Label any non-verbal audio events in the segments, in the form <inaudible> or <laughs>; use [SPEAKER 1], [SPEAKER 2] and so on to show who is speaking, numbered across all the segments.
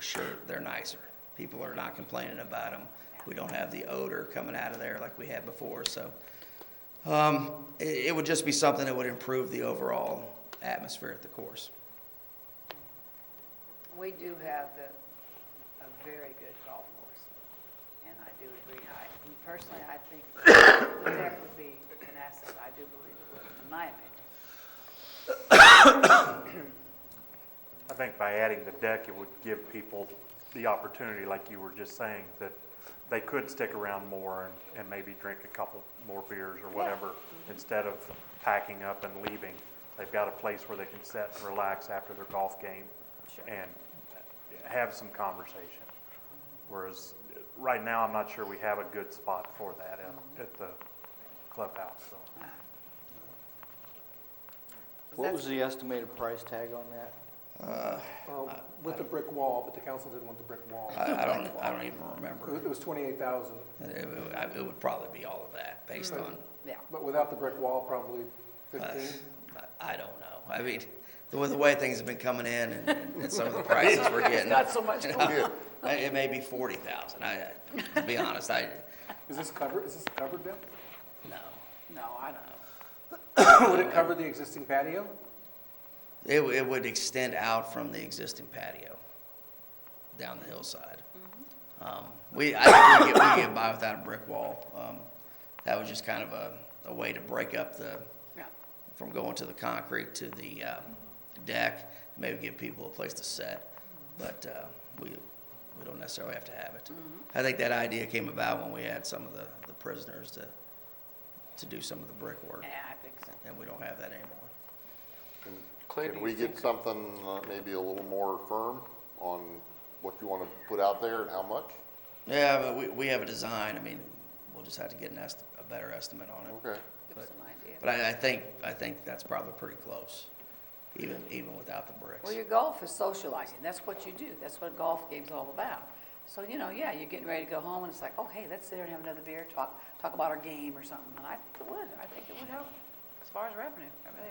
[SPEAKER 1] sure they're nicer. People are not complaining about them. We don't have the odor coming out of there like we had before, so. Um, it, it would just be something that would improve the overall atmosphere at the course.
[SPEAKER 2] We do have the, a very good golf course, and I do agree. I, and personally, I think the tech would be an asset. I do believe it would, in my opinion.
[SPEAKER 3] I think by adding the deck, it would give people the opportunity, like you were just saying, that they could stick around more and, and maybe drink a couple more beers or whatever, instead of packing up and leaving. They've got a place where they can sit and relax after their golf game and have some conversation. Whereas, uh, right now, I'm not sure we have a good spot for that at, at the clubhouse, so.
[SPEAKER 4] What was the estimated price tag on that?
[SPEAKER 5] Um,
[SPEAKER 1] Uh,
[SPEAKER 5] With the brick wall, but the council didn't want the brick wall.
[SPEAKER 1] I, I don't, I don't even
[SPEAKER 5] It was-
[SPEAKER 1] remember.
[SPEAKER 5] it was 28,000,
[SPEAKER 1] It, would- I- it would probably be all of that based on,
[SPEAKER 2] Yeah.
[SPEAKER 5] but without the brick wall, probably
[SPEAKER 1] uh,
[SPEAKER 5] 15.
[SPEAKER 1] I don't know. I mean, the way, the way things have been coming in and, and some of the prices <laughs> we're getting. Not so much. It may be forty thousand. I, I- to be honest, I,
[SPEAKER 5] Is this covered, is this covered deck?
[SPEAKER 1] no.
[SPEAKER 2] No, I don't.
[SPEAKER 1] Uh,
[SPEAKER 5] Would it cover the existing patio?
[SPEAKER 1] It, w- it would extend out from the existing patio down the hillside. Um, we, I think we get, we get by without a brick wall. Um, that was just kind of a, a way to break up the,
[SPEAKER 2] Yeah.
[SPEAKER 1] from going to the concrete to the, um, deck, maybe give people a place to sit. But, uh, we, we don't necessarily have to have it. I think that idea came about when we had some of the, the prisoners to, to do some of the brickwork,
[SPEAKER 2] Yeah, I think so.
[SPEAKER 1] and we don't have that anymore.
[SPEAKER 6] Can can we get something uh, maybe a little more firm on what you want to put out there and how much?
[SPEAKER 1] Yeah, but we, we have a design, I mean, we'll just have to get an est, a better estimate on it.
[SPEAKER 6] Okay.
[SPEAKER 2] Give us an idea.
[SPEAKER 1] But I, I think, I think that's probably pretty close, even, even without the
[SPEAKER 2] Well,
[SPEAKER 1] bricks.
[SPEAKER 2] your golf is socializing, that's what you do, that's what a golf game's all about. So, you know, yeah, you're getting ready to go home, and it's like, oh, hey, let's sit there and have another beer, talk, talk about our game or something, and I think it would, I think it would help as far as revenue, I really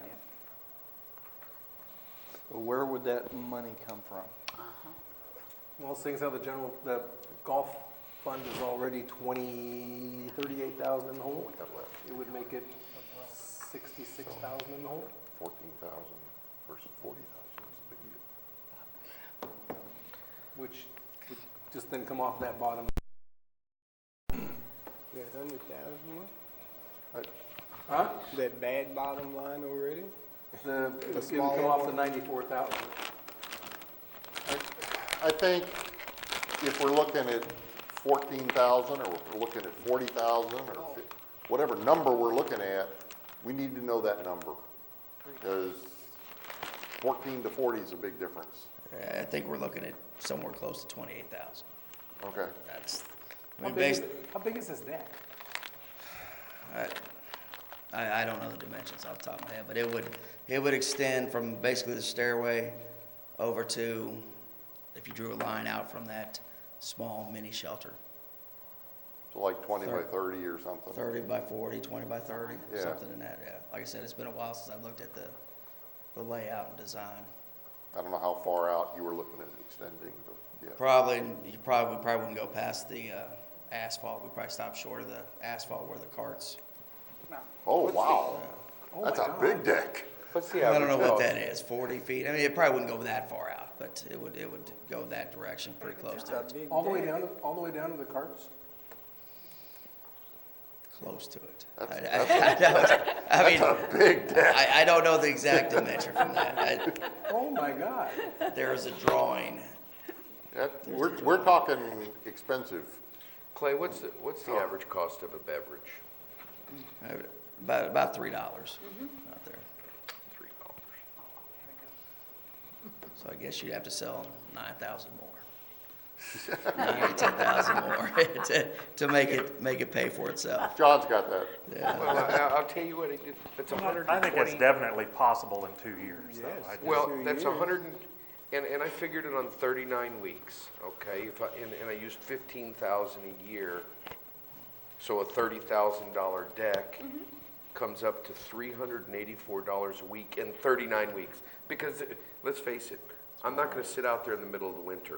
[SPEAKER 2] do.
[SPEAKER 4] Where would that money come from?
[SPEAKER 5] Well, seeing as how the general, the golf fund is already 20, 38,000 in the hole,
[SPEAKER 6] We have left
[SPEAKER 5] it would make it 66,000 in the hole.
[SPEAKER 6] fourteen thousand versus forty thousand is a big deal.
[SPEAKER 5] which would just then come off that bottom.
[SPEAKER 7] That hundred thousand one,
[SPEAKER 5] Huh?
[SPEAKER 7] that bad bottom line already?
[SPEAKER 5] The, it would
[SPEAKER 7] smaller
[SPEAKER 5] come off the
[SPEAKER 7] one.
[SPEAKER 5] ninety-four thousand.
[SPEAKER 6] I think if we're looking at fourteen thousand, or if we're looking at forty thousand, or fif- whatever number we're looking at, we need to know that number. Because fourteen to forty is a big difference.
[SPEAKER 1] I think we're looking at somewhere close to twenty-eight thousand.
[SPEAKER 6] Okay,
[SPEAKER 1] That's, I
[SPEAKER 5] How
[SPEAKER 1] mean,
[SPEAKER 5] big, is-
[SPEAKER 1] based,
[SPEAKER 5] how big is this deck?
[SPEAKER 1] I, I don't know the dimensions off the top of my head, but it would, it would extend from basically the stairway over to, if you drew a line out from that small mini shelter,
[SPEAKER 6] so like twenty by thirty or something.
[SPEAKER 1] 30 by 40, 20 by 30,
[SPEAKER 6] Yeah.
[SPEAKER 1] something in that, yeah. Like I said, it's been a while since I've looked at the, the layout and design.
[SPEAKER 6] I don't know how far out you were looking at extending, but yeah.
[SPEAKER 1] Probably, you probably, we probably wouldn't go past the uh, asphalt, we probably stop short of the asphalt where the carts.
[SPEAKER 2] Well,
[SPEAKER 6] Oh, wow.
[SPEAKER 5] Oh
[SPEAKER 6] That's
[SPEAKER 5] my
[SPEAKER 6] a
[SPEAKER 5] God.
[SPEAKER 6] big deck.
[SPEAKER 7] What's the
[SPEAKER 1] I don't know what that is, 40 feet, I mean, it probably wouldn't go that far out, but it would, it would go that direction, pretty close to it,
[SPEAKER 5] All the way down, to- all the way down to the carts?
[SPEAKER 1] close to it.
[SPEAKER 6] That's-
[SPEAKER 1] <laughs> I- I- I don't- I mean,
[SPEAKER 6] Big deck.
[SPEAKER 1] I, I don't know the exact dimension from that.
[SPEAKER 5] Oh my God.
[SPEAKER 1] I- There is a drawing,
[SPEAKER 6] That- We're, we're talking expensive.
[SPEAKER 8] Clay, what's, the- what's the average cost of a beverage?
[SPEAKER 1] uh, about, about $3 out there.
[SPEAKER 8] Three dollars.
[SPEAKER 1] So I guess you'd have to sell nine thousand more. <laughs> Nine, ten thousand more <laughs> to, to make it, make it pay for itself.
[SPEAKER 6] John's got that.
[SPEAKER 8] Well, I- I'll tell you what, it- it's a hundred
[SPEAKER 3] I
[SPEAKER 8] and
[SPEAKER 3] think it's
[SPEAKER 8] twenty.
[SPEAKER 3] definitely possible in two years, though. I just-
[SPEAKER 8] Well,
[SPEAKER 7] two
[SPEAKER 8] that's a
[SPEAKER 7] years.
[SPEAKER 8] hundred and, and, and I figured it on thirty-nine weeks, okay? If I, and, and I used fifteen thousand a year, so a thirty thousand dollar deck
[SPEAKER 3] Mm-hmm.
[SPEAKER 8] comes up to three hundred and eighty-four dollars a week in thirty-nine weeks. Because, uh, let's face it, I'm not gonna sit out there in the middle of the winter.